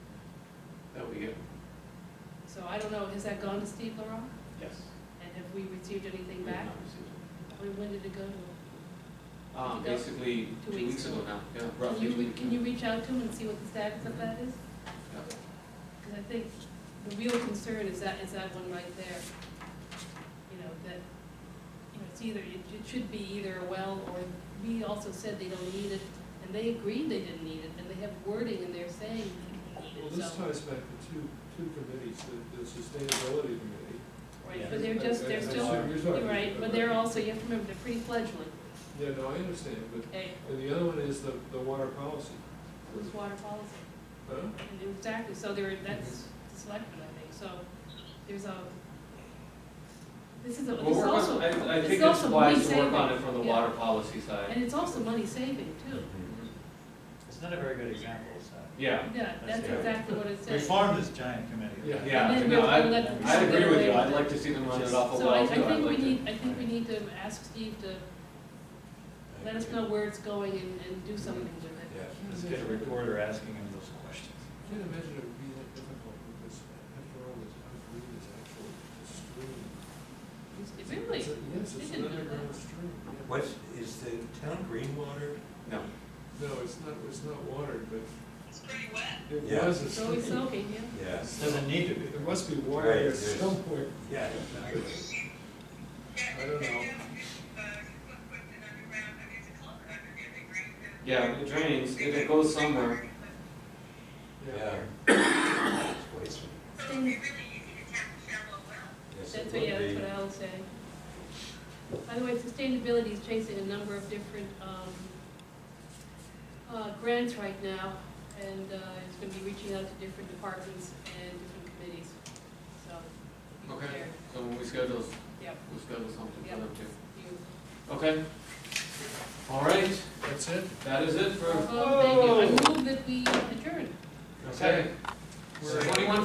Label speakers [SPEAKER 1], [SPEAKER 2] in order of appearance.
[SPEAKER 1] do.
[SPEAKER 2] So I don't know, has that gone to Steve Larock?
[SPEAKER 1] Yes.
[SPEAKER 2] And have we received anything back? When, when did it go to him?
[SPEAKER 1] Um, basically, two weeks ago now, yeah,
[SPEAKER 2] Can
[SPEAKER 1] roughly.
[SPEAKER 2] you,
[SPEAKER 1] two
[SPEAKER 2] re-
[SPEAKER 1] weeks
[SPEAKER 2] can
[SPEAKER 1] ago.
[SPEAKER 2] you reach out to him and see what the status of that is?
[SPEAKER 1] Yeah.
[SPEAKER 2] Because I think the real concern is that, is that one right there. You know, that, you know, it's either, it it should be either a well, or we also said they don't need it, and they agreed they didn't need it, and they have wording in there saying they
[SPEAKER 3] Well,
[SPEAKER 2] don't need it,
[SPEAKER 3] this
[SPEAKER 2] so.
[SPEAKER 3] ties back to two, two committees, the, the sustainability committee.
[SPEAKER 2] Right, but they're just, they're
[SPEAKER 3] And- and
[SPEAKER 2] still,
[SPEAKER 3] so you're talking-
[SPEAKER 2] you're right, but they're also, you have to remember, they're pre-fledgling,
[SPEAKER 3] Yeah, no, I understand, but,
[SPEAKER 2] okay?
[SPEAKER 3] and the other one is the, the water policy.
[SPEAKER 2] Who's water policy?
[SPEAKER 3] Huh?
[SPEAKER 2] And Exactly, so there, that's the selectmen, I think, so there's a, this is a, this
[SPEAKER 1] We'll
[SPEAKER 2] is
[SPEAKER 1] work
[SPEAKER 2] also,
[SPEAKER 1] on, I, I
[SPEAKER 2] it's
[SPEAKER 1] think it's
[SPEAKER 2] also
[SPEAKER 1] wise to work
[SPEAKER 2] money-saving.
[SPEAKER 1] on it from the
[SPEAKER 2] Yeah.
[SPEAKER 1] water policy side.
[SPEAKER 2] and it's also money saving too.
[SPEAKER 3] Mm-hmm.
[SPEAKER 4] It's not a very good example, so.
[SPEAKER 1] Yeah,
[SPEAKER 2] Yeah, that's
[SPEAKER 4] Yeah.
[SPEAKER 2] exactly what it
[SPEAKER 4] We
[SPEAKER 2] says.
[SPEAKER 4] formed this giant committee.
[SPEAKER 3] Yeah.
[SPEAKER 1] yeah,
[SPEAKER 2] And then
[SPEAKER 1] no,
[SPEAKER 2] we'll-
[SPEAKER 1] I,
[SPEAKER 2] we'll let them
[SPEAKER 1] I agree with you,
[SPEAKER 2] away
[SPEAKER 1] I'd
[SPEAKER 2] with
[SPEAKER 1] like
[SPEAKER 2] it.
[SPEAKER 1] to see them run it off a
[SPEAKER 2] So I, I
[SPEAKER 1] well too, I'd
[SPEAKER 2] think we
[SPEAKER 1] like to.
[SPEAKER 2] need, I think we need to ask Steve to let us know where it's going and, and do something with it.
[SPEAKER 4] Yeah, Let's get a reporter asking him those questions.
[SPEAKER 3] I Can't imagine it would be that difficult, because after all, this, I believe it's actually a stream.
[SPEAKER 2] It's- It really,
[SPEAKER 3] It's a- Yes,
[SPEAKER 2] They
[SPEAKER 3] it's an
[SPEAKER 2] didn't know that.
[SPEAKER 3] underground stream. yeah.
[SPEAKER 5] What's, is the town green water?
[SPEAKER 1] No,
[SPEAKER 3] No, it's not, it's not watered, but
[SPEAKER 6] It's pretty wet.
[SPEAKER 3] it
[SPEAKER 5] Yeah.
[SPEAKER 3] was a
[SPEAKER 2] it's always
[SPEAKER 3] stream.
[SPEAKER 2] soaking, yeah.
[SPEAKER 5] Yes.
[SPEAKER 4] Doesn't need to be.
[SPEAKER 3] There must be water
[SPEAKER 5] Right,
[SPEAKER 3] there
[SPEAKER 5] there's-
[SPEAKER 3] somewhere.
[SPEAKER 5] Yeah, exactly.
[SPEAKER 3] I don't know.
[SPEAKER 6] uh, uh,
[SPEAKER 1] yeah, it drains, if it goes somewhere,
[SPEAKER 5] Yeah. It's wasteful.
[SPEAKER 6] So it'd be really easy to tap a shallow well.
[SPEAKER 5] Yes, it
[SPEAKER 2] That's what, yeah,
[SPEAKER 5] would
[SPEAKER 2] that's
[SPEAKER 5] be.
[SPEAKER 2] what I'll say. By the way, sustainability is chasing a number of different, um, uh, grants right now, and, uh, it's gonna be reaching out to different departments and different committees, so. you
[SPEAKER 1] okay,
[SPEAKER 2] there.
[SPEAKER 1] so when we schedule,
[SPEAKER 2] Yep,
[SPEAKER 1] we'll schedule something for
[SPEAKER 2] Yep.
[SPEAKER 1] them too.
[SPEAKER 2] you.
[SPEAKER 1] Okay? All right,
[SPEAKER 3] That's it?
[SPEAKER 1] that is it for,
[SPEAKER 2] Um, thank you, I move that we adjourn.
[SPEAKER 1] okay,
[SPEAKER 3] We're-
[SPEAKER 1] twenty-one